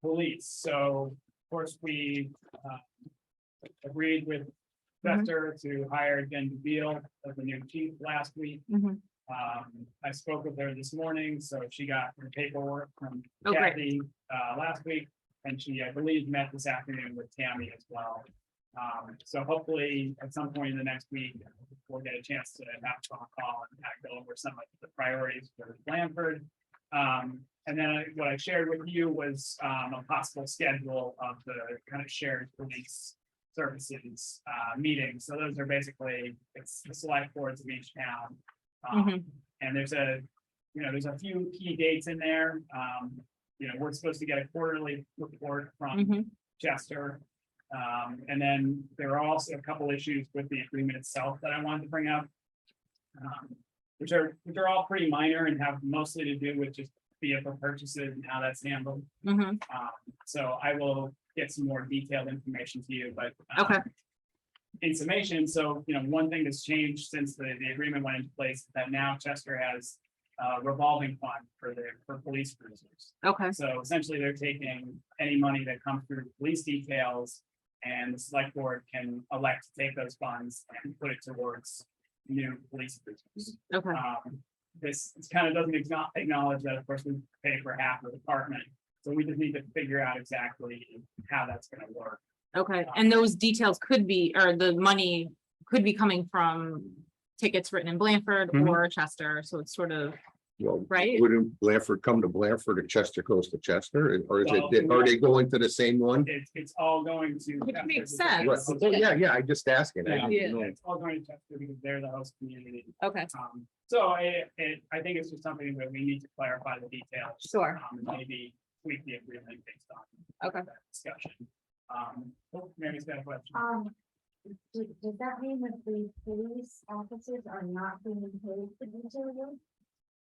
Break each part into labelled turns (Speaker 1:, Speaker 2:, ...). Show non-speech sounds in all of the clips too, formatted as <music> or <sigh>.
Speaker 1: police, so of course we uh, agreed with
Speaker 2: Mm-hmm.
Speaker 1: Fester to hire Jen Beal as the new chief last week.
Speaker 2: Mhm.
Speaker 1: Um, I spoke with her this morning, so she got her paperwork from
Speaker 2: Oh, great.
Speaker 1: Kathy uh last week. And she, I believe, met this afternoon with Tammy as well. Um, so hopefully at some point in the next week, we'll get a chance to have a phone call and kind of go over some of the priorities for Blanford. Um, and then I- what I shared with you was um a possible schedule of the kind of shared police services uh meetings. So those are basically, it's the select boards of each town. Um,
Speaker 2: Mhm.
Speaker 1: and there's a, you know, there's a few key dates in there. Um, you know, we're supposed to get a quarterly report from
Speaker 2: Mhm.
Speaker 1: Chester. Um, and then there are also a couple issues with the agreement itself that I wanted to bring up. um, Which are, which are all pretty minor and have mostly to do with just vehicle purchases and how that's handled.
Speaker 2: Mhm.
Speaker 1: Um, so I will get some more detailed information to you, but. um,
Speaker 2: Okay.
Speaker 1: In summation, so, you know, one thing that's changed since the, the agreement went into place, is that now Chester has a revolving fund for the, for police cruisers.
Speaker 2: Okay,
Speaker 1: So essentially, they're taking any money that comes through police details. And the select board can elect to take those funds and put it towards new police cruisers.
Speaker 2: okay,
Speaker 1: Um, this kind of doesn't acknow- acknowledge that, of course, we pay for half of the department. So we just need to figure out exactly how that's gonna work.
Speaker 2: okay. And those details could be, or the money could be coming from tickets written in Blanford
Speaker 1: Mhm.
Speaker 2: or Chester, so it's sort of,
Speaker 3: Well,
Speaker 2: Right.
Speaker 3: wouldn't Blanford come to Blanford and Chester goes to Chester, and- or is it,
Speaker 1: Well,
Speaker 3: are they going to the same one?
Speaker 1: It's, it's all going to.
Speaker 2: Which makes
Speaker 1: Chester
Speaker 3: Right,
Speaker 1: because-
Speaker 2: sense.
Speaker 3: oh, Yeah, yeah, I just asking. I
Speaker 1: Yeah,
Speaker 3: didn't know.
Speaker 1: It's all going to Chester because they're the host community.
Speaker 2: okay,
Speaker 1: Um, so it, it, I think it's just something that we need to clarify the details.
Speaker 2: Sure.
Speaker 1: Um, and maybe tweak the agreement based on.
Speaker 2: Okay.
Speaker 1: that Discussion. Um, oh, Mary's got a question.
Speaker 4: Um, do- does that mean that the police officers are not being paid for these hours?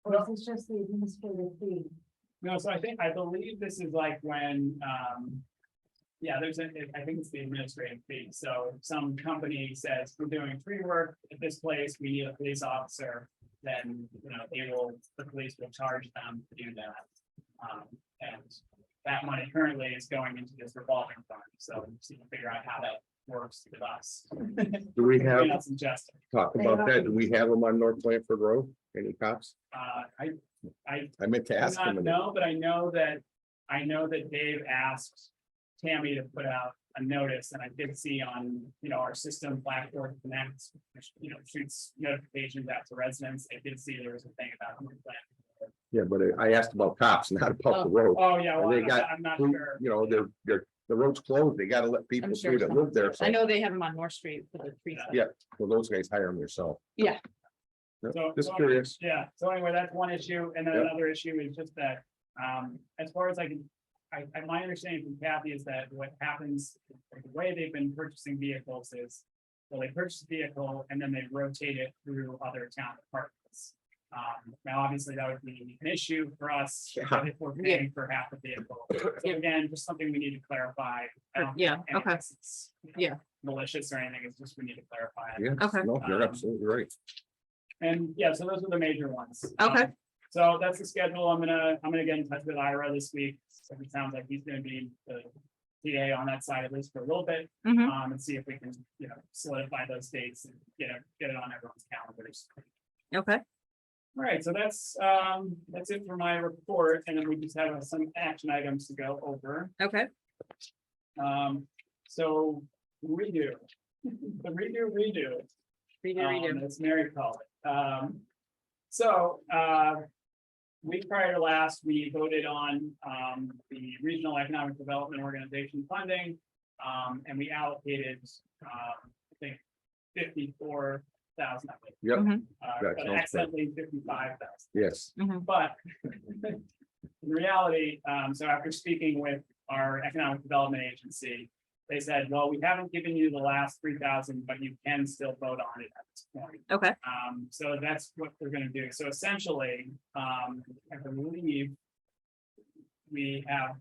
Speaker 4: Or is this just the administrative fee?
Speaker 1: No, so I think, I believe this is like when, um. Yeah, there's a, I think it's the administrative fee. So if some company says, we're doing free work at this place, we need a police officer. Then, you know, they will, the police will charge them to do that. Um, and that money currently is going into this revolving fund, so we just need to figure out how that works with us.
Speaker 3: Do we
Speaker 1: Between
Speaker 3: have,
Speaker 1: us and Justin.
Speaker 3: talk about that, do we have them on North Blanford Road, any cops?
Speaker 1: Uh, I, I
Speaker 3: I meant to ask
Speaker 1: I
Speaker 3: them.
Speaker 1: do not know, but I know that, I know that Dave asked Tammy to put out a notice, and I did see on, you know, our system, Blackboard Connect, which, you know, shoots notifications out to residents, I did see there was a thing about. who planned.
Speaker 3: Yeah, but I- I asked about cops, <laughs> not about the road.
Speaker 1: Oh, yeah, well,
Speaker 3: They
Speaker 1: I'm not-
Speaker 3: got
Speaker 1: I'm not
Speaker 3: Who-
Speaker 1: sure.
Speaker 3: You know, they're, they're, the road's closed, they gotta let people
Speaker 2: sure
Speaker 3: through that live there, so,
Speaker 2: I know they have them on North Street for the tree.
Speaker 3: Yeah. well, those guys hire them yourself.
Speaker 2: Yeah.
Speaker 1: So-
Speaker 3: Just curious,
Speaker 1: Yeah, so anyway, that's one issue, and then
Speaker 3: Yeah.
Speaker 1: another issue is just that, um, as far as I can. I, I, my understanding from Kathy is that what happens, like, the way they've been purchasing vehicles is. Well, they purchase a vehicle and then they rotate it through other town departments. Um, now, obviously, that would be an issue for us if
Speaker 3: Yeah.
Speaker 1: we're paying for half the vehicle. So
Speaker 2: Yeah.
Speaker 1: again, just something we need to clarify. I don't
Speaker 2: Yeah,
Speaker 1: think
Speaker 2: okay,
Speaker 1: it's, you know,
Speaker 2: Yeah.
Speaker 1: Malicious or anything, it's just we need to clarify. it.
Speaker 3: yeah,
Speaker 2: Okay.
Speaker 3: no, you're absolutely right,
Speaker 1: And yeah, so those are the major ones.
Speaker 2: Okay.
Speaker 1: Um, So that's the schedule. I'm gonna, I'm gonna get in touch with Ira this week. So it sounds like he's gonna be the TA on that side at least for a little bit.
Speaker 2: Mhm.
Speaker 1: Um, and see if we can, you know, solidify those dates and get it, get it on everyone's calendars.
Speaker 2: okay,
Speaker 1: All right, so that's, um, that's it for my report. And then we just have uh, some action items to go over.
Speaker 2: okay.
Speaker 1: Um, so redo, <laughs> the redo, redo.
Speaker 2: Redo, redo.
Speaker 1: Um, As Mary called it. Um, so, uh, week prior to last, we voted on, um, the Regional Economic Development Organization funding. Um, and we allocated, um, I think fifty-four thousand, I think.
Speaker 3: Yep.
Speaker 2: Mhm.
Speaker 1: Uh,
Speaker 3: That
Speaker 1: but
Speaker 3: sounds right.
Speaker 1: accidentally fifty-five thousand.
Speaker 3: yes,
Speaker 1: But <laughs> in reality, um, so after speaking with our economic development agency, they said, well, we haven't given you the last three thousand, but you can still vote on it at this point.
Speaker 2: Okay.
Speaker 1: Um, so that's what they're gonna do. So essentially, um, I believe we have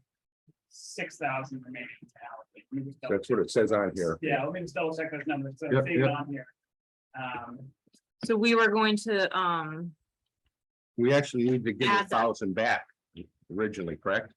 Speaker 1: six thousand remaining to allocate. Let me just double
Speaker 3: that's what it says on here.
Speaker 1: Yeah, let me just double check those numbers. So
Speaker 3: Yep,
Speaker 1: they're
Speaker 3: yep.
Speaker 1: on here. Um,
Speaker 2: So we were going to, um,
Speaker 3: We actually need to give a
Speaker 2: Add that.
Speaker 3: thousand back originally, correct?